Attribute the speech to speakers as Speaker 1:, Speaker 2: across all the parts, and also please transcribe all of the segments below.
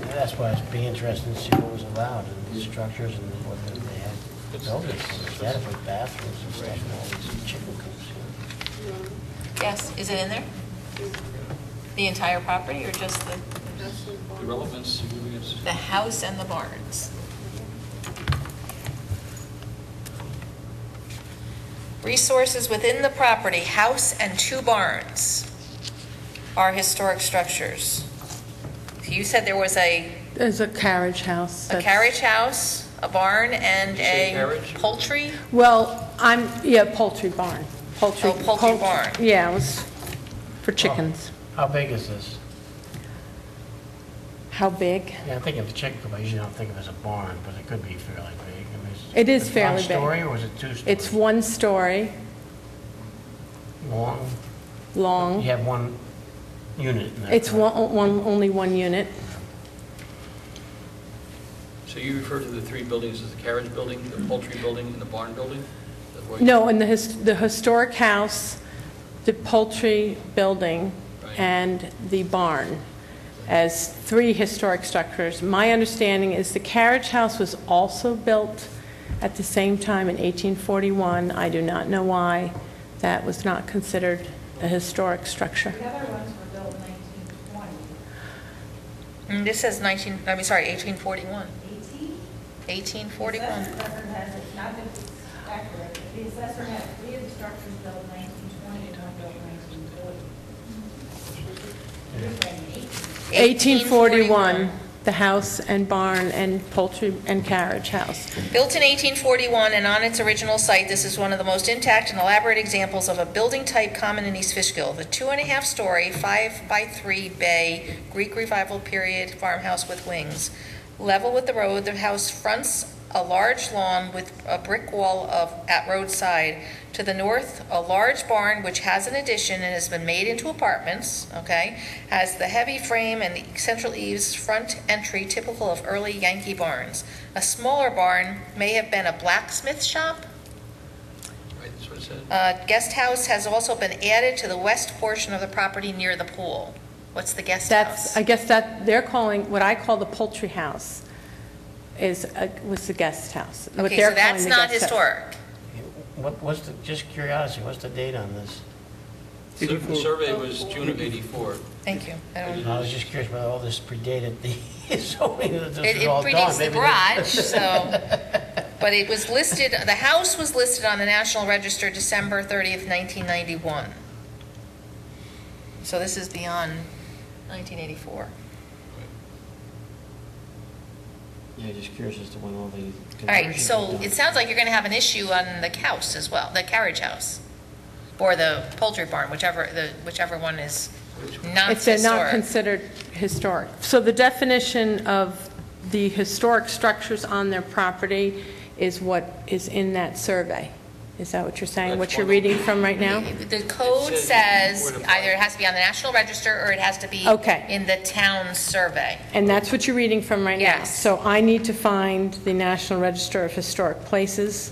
Speaker 1: That's why it'd be interesting to see what was allowed and the structures and what they had built. It's adequate bathrooms and stuff and all these chicken coops.
Speaker 2: Yes, is it in there? The entire property or just the,
Speaker 3: The relevance, significance,
Speaker 2: the house and the barns? Resources within the property, house and two barns are historic structures. So You said there was a,
Speaker 4: There's a carriage house.
Speaker 2: a
Speaker 4: that's-
Speaker 2: carriage house, a barn, and
Speaker 3: Did you say
Speaker 2: a
Speaker 3: carriage?
Speaker 2: poultry?
Speaker 4: Well, I'm, yeah, poultry barn. Poultry.
Speaker 2: Oh, poultry
Speaker 4: poult-
Speaker 2: barn. Oh.
Speaker 4: Yeah, it was for chickens.
Speaker 1: How big is this?
Speaker 4: How big?
Speaker 1: Yeah, I think of a chicken coop, I usually don't think of it as a barn, but it could be fairly big. I mean, it's-
Speaker 4: It is
Speaker 1: it's
Speaker 4: fairly big.
Speaker 1: One story or is it two stories?
Speaker 4: It's one story
Speaker 1: Long? You
Speaker 4: long.
Speaker 1: have one unit in there.
Speaker 4: It's
Speaker 1: correct?
Speaker 4: one, one, only one unit.
Speaker 3: so you refer to the three buildings as the carriage building, the poultry building, and the barn building? Is that what you-
Speaker 4: No, and the his, the historic house, the poultry building,
Speaker 3: Right.
Speaker 4: and the barn as three historic structures. My understanding is the carriage house was also built at the same time in 1841. I do not know why that was not considered a historic structure.
Speaker 5: The other ones were built in 1920.
Speaker 2: Mm, This says 19, I mean, sorry, 1841.
Speaker 5: 18?
Speaker 2: 1841.
Speaker 5: The assessor has it, not that it's accurate, but the assessor had three of the structures built in 1920 and one built in 1940. You're saying 18.
Speaker 4: 1841, the house and barn and poultry and carriage house.
Speaker 2: Built in 1841 and on its original site, this is one of the most intact and elaborate examples of a building type common in East Fishkill. The two-and-a-half-story, five-by-three bay Greek Revival period farmhouse with wings. Level with the road, the house fronts a large lawn with a brick wall of, at roadside. To the north, a large barn which has an addition and has been made into apartments, okay? Has the heavy frame and the central eaves front entry typical of early Yankee barns. A smaller barn may have been a blacksmith shop.
Speaker 3: Right, that's what it said.
Speaker 2: A guest house has also been added to the west portion of the property near the pool. What's the guest
Speaker 4: That's,
Speaker 2: house?
Speaker 4: I guess that, they're calling, what I call the poultry house is, a- was the guest house. what
Speaker 2: Okay,
Speaker 4: they're
Speaker 2: so that's
Speaker 4: calling the
Speaker 2: not
Speaker 4: guest house.
Speaker 2: historic.
Speaker 1: What, what's the, just curiosity, what's the date on this?
Speaker 3: So The survey was June of 84.
Speaker 2: Thank you. I don't-
Speaker 1: I was just curious whether all this predated the zoning that this
Speaker 2: It
Speaker 1: was
Speaker 2: it
Speaker 1: all done.
Speaker 2: predates the
Speaker 1: Maybe
Speaker 2: garage, so, but it was listed, the house was listed on the National Register December 30th, 1991. So this is beyond 1984.
Speaker 1: Yeah, just curious as to when all the conversions
Speaker 2: All right,
Speaker 1: were
Speaker 2: so
Speaker 1: done.
Speaker 2: it sounds like you're going to have an issue on the house as well, the carriage house, or the poultry barn, whichever, the whichever one is not
Speaker 4: If they're
Speaker 2: historic.
Speaker 4: not considered historic. So the definition of the historic structures on their property is what is in that survey. Is that what you're saying, what
Speaker 3: That's
Speaker 4: you're
Speaker 3: one of
Speaker 4: reading from right now?
Speaker 2: The code
Speaker 3: It says
Speaker 2: says
Speaker 3: where to-
Speaker 2: either it has to be on the National Register or it has to be
Speaker 4: Okay.
Speaker 2: in the town survey.
Speaker 4: And that's what you're reading from right now?
Speaker 2: Yes.
Speaker 4: So I need to find the National Register of Historic Places,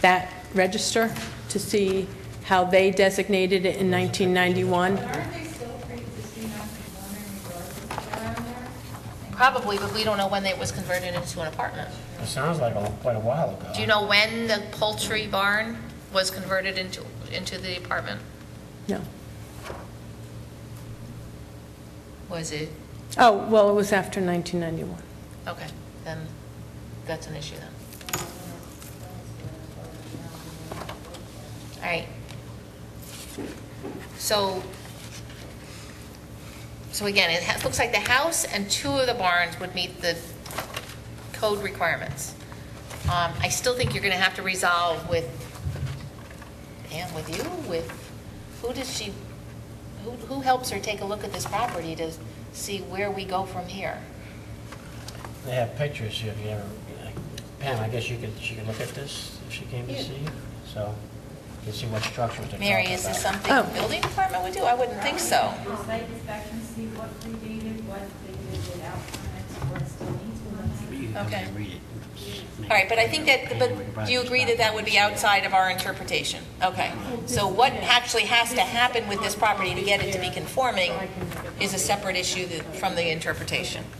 Speaker 4: that register, to see how they designated it in 1991.
Speaker 5: But aren't they still pre-existing non-conforming regardless of where on there?
Speaker 2: Probably, but we don't know when it was converted into an apartment.
Speaker 1: It sounds like a- quite a while ago.
Speaker 2: Do you know when the poultry barn was converted into, into the apartment?
Speaker 4: No.
Speaker 2: Was it,
Speaker 4: Oh, well, it was after 1991.
Speaker 2: okay, then that's an issue then. All right. So, so again, it ha- looks like the house and two of the barns would meet the code requirements. Um, I still think you're going to have to resolve with, Pam, with you, with, who does she, who, who helps her take a look at this property to see where we go from here?
Speaker 1: They have pictures, if you ever, Pam, I guess you could, she could look at this if she came to see you, so you can see what structures they're talking about.
Speaker 2: Mary, is this something
Speaker 4: Oh.
Speaker 2: building department would do? I wouldn't think so.
Speaker 5: Do site inspection, see what predated, what they did without permits, what still needs permits?
Speaker 1: You can come in
Speaker 2: Okay.
Speaker 1: and read it.
Speaker 2: All right, but I think that, but do you agree that that would be outside of our interpretation? Okay. So what actually has to happen with this property to get it to be conforming is a separate issue that- from the interpretation.